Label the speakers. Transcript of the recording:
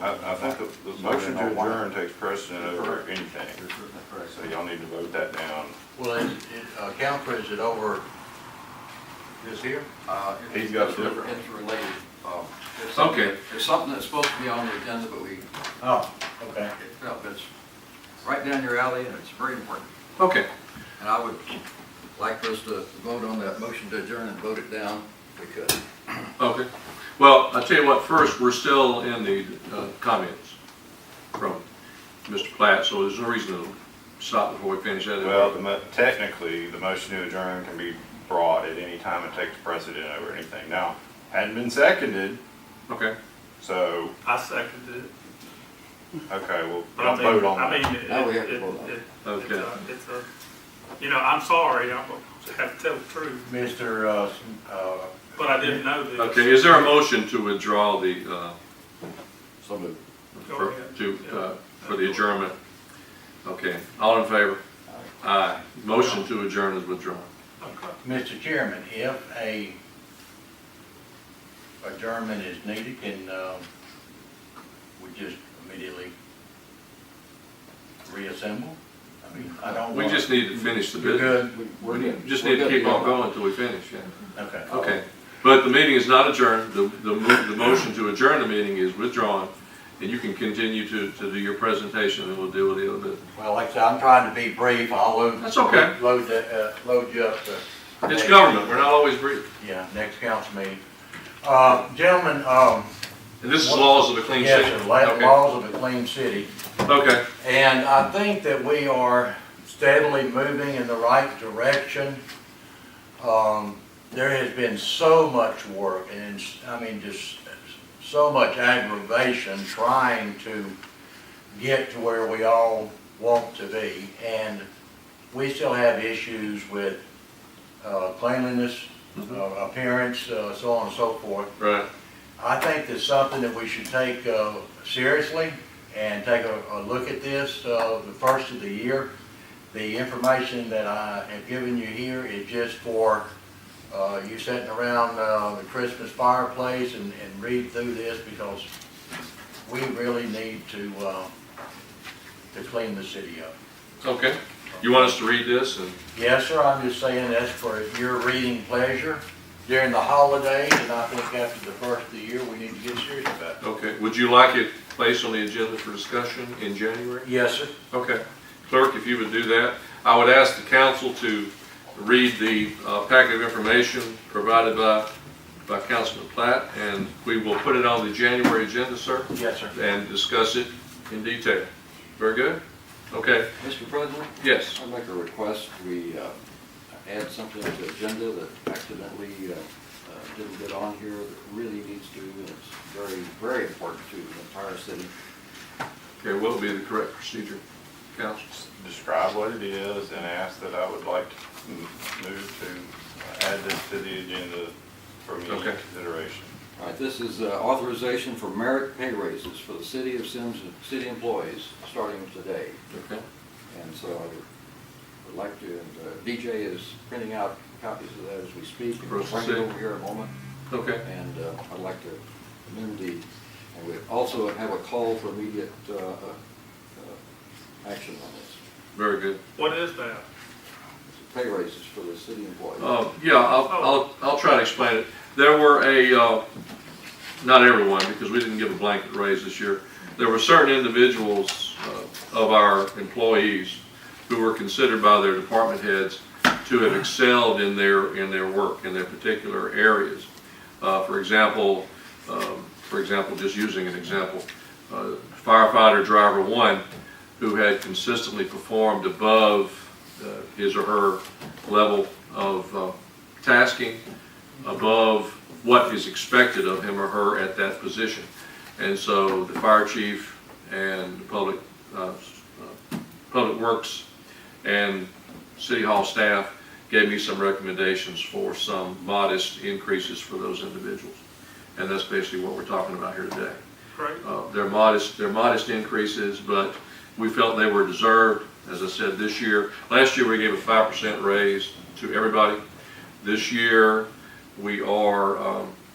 Speaker 1: I, I think the, the motion to adjourn takes precedent over anything, so y'all need to vote that down.
Speaker 2: Well, is, is, uh, council, is it over this here?
Speaker 3: Uh,
Speaker 1: He's got a
Speaker 3: it's re-
Speaker 1: different-
Speaker 3: It's related. um, it's something-
Speaker 4: Okay,
Speaker 3: It's something that's supposed to be on the agenda, but we, it
Speaker 2: Oh, okay.
Speaker 3: fell, but it's right down your alley and it's very important.
Speaker 4: okay.
Speaker 3: And I would like for us to vote on that motion to adjourn and vote it down if we could.
Speaker 4: Okay. Well, I'll tell you what, first, we're still in the uh, comments from Mr. Platt, so there's no reason to stop before we finish that.
Speaker 1: Well, the mo- technically, the motion to adjourn can be brought at any time and takes precedent over anything. Now, hadn't been seconded,
Speaker 4: Okay,
Speaker 1: so,
Speaker 5: I seconded it,
Speaker 1: okay, well,
Speaker 5: but I
Speaker 1: don't
Speaker 5: mean,
Speaker 1: vote on Oh,
Speaker 5: I
Speaker 1: that.
Speaker 5: mean, it,
Speaker 3: No, we have to
Speaker 5: it,
Speaker 3: vote on it.
Speaker 5: it- it's
Speaker 4: uh, okay.
Speaker 5: a, it's a, you know, I'm sorry, I'm gonna have to tell the truth,
Speaker 2: Mr. Uh, s- uh,
Speaker 5: but I didn't know this.
Speaker 4: Okay, is there a motion to withdraw the, uh,
Speaker 3: So moved.
Speaker 5: Go
Speaker 4: for-
Speaker 5: ahead.
Speaker 4: to,
Speaker 5: Yeah.
Speaker 4: uh, for the adjournment? Okay, all in favor? Aye. Motion to adjourn is withdrawn.
Speaker 5: Okay.
Speaker 2: Mr. Chairman, if a adjournment is needed, can, um, we just immediately reassemble? I mean, I don't
Speaker 4: We
Speaker 2: want.
Speaker 4: just need to finish the
Speaker 2: You're
Speaker 4: business.
Speaker 2: good?
Speaker 3: We- we're
Speaker 4: We
Speaker 3: good.
Speaker 4: just
Speaker 3: We're
Speaker 4: need to
Speaker 3: good
Speaker 4: keep
Speaker 3: go.
Speaker 4: on going until we finish, yeah.
Speaker 2: Okay.
Speaker 4: Okay, but the meeting is not adjourned, the, the, mo- the motion to adjourn the meeting is withdrawn, and you can continue to, to do your presentation, and we'll deal with the other business.
Speaker 2: Well, like I said, I'm trying to be brief, I'll load.
Speaker 4: That's okay.
Speaker 2: Load the, uh, load you up to.
Speaker 4: It's government, we're not always brief,
Speaker 2: Yeah, next council meeting. Uh, gentlemen, um,
Speaker 4: and this is laws of a clean city.
Speaker 2: yes, the la-
Speaker 4: Okay.
Speaker 2: laws of a clean city.
Speaker 4: Okay,
Speaker 2: And I think that we are steadily moving in the right direction. Um, There has been so much work and, it's- I mean, just so much aggravation trying to get to where we all want to be. And we still have issues with uh, cleanliness, uh, appearance, uh, so on and so forth.
Speaker 4: right,
Speaker 2: I think that's something that we should take uh, seriously and take a, a look at this, uh, the first of the year. The information that I have given you here is just for, uh, you sitting around, uh, the Christmas fireplace and, and read through this because we really need to, uh, to clean the city up.
Speaker 4: okay. You want us to read this and,
Speaker 2: Yes, sir, I'm just saying that's for your reading pleasure during the holidays and I think after the first of the year, we need to get serious about it.
Speaker 4: okay, would you like it placed on the agenda for discussion in January?
Speaker 2: Yes, sir.
Speaker 4: Okay, clerk, if you would do that, I would ask the council to read the uh, packet of information provided by, by Councilman Platt, and we will put it on the January agenda, sir,
Speaker 2: Yes, sir.
Speaker 4: and discuss it in detail. Very good? Okay,
Speaker 3: Mr. President?
Speaker 4: yes,
Speaker 3: I'd like a request, we uh, add something to the agenda that accidentally uh, uh, didn't get on here that really needs to, and it's very, very important to the entire city.
Speaker 4: okay, what will be the correct procedure, council?
Speaker 1: Describe what it is and ask that I would like to m- move to add this to the agenda for immediate
Speaker 4: Okay.
Speaker 1: consideration.
Speaker 3: All right, this is uh, authorization for merit pay raises for the city of Sims, city employees, starting today.
Speaker 4: Okay,
Speaker 3: And so I would like to, and uh, DJ is printing out copies of that as we speak. and We'll bring it over here in a moment.
Speaker 4: okay,
Speaker 3: And uh, I'd like to amend the, and we also have a call for immediate uh, uh, uh, action on this.
Speaker 4: very good.
Speaker 5: What is that?
Speaker 3: Pay raises for the city employees.
Speaker 4: Uh, Yeah, I'll, I'll, I'll try to explain it. There were a, uh, not everyone, because we didn't give a blanket raise this year. There were certain individuals uh, of our employees who were considered by their department heads to have excelled in their, in their work, in their particular areas. Uh, For example, um, for example, just using an example, uh, firefighter driver one, who had consistently performed above uh, his or her level of uh, tasking, above what is expected of him or her at that position. And so the fire chief and the public, uh, uh, public works and city hall staff gave me some recommendations for some modest increases for those individuals. And that's basically what we're talking about here today.
Speaker 5: Great.
Speaker 4: Uh, They're modest, they're modest increases, but we felt they were deserved. As I said, this year, last year we gave a five percent raise to everybody. This year, we are um,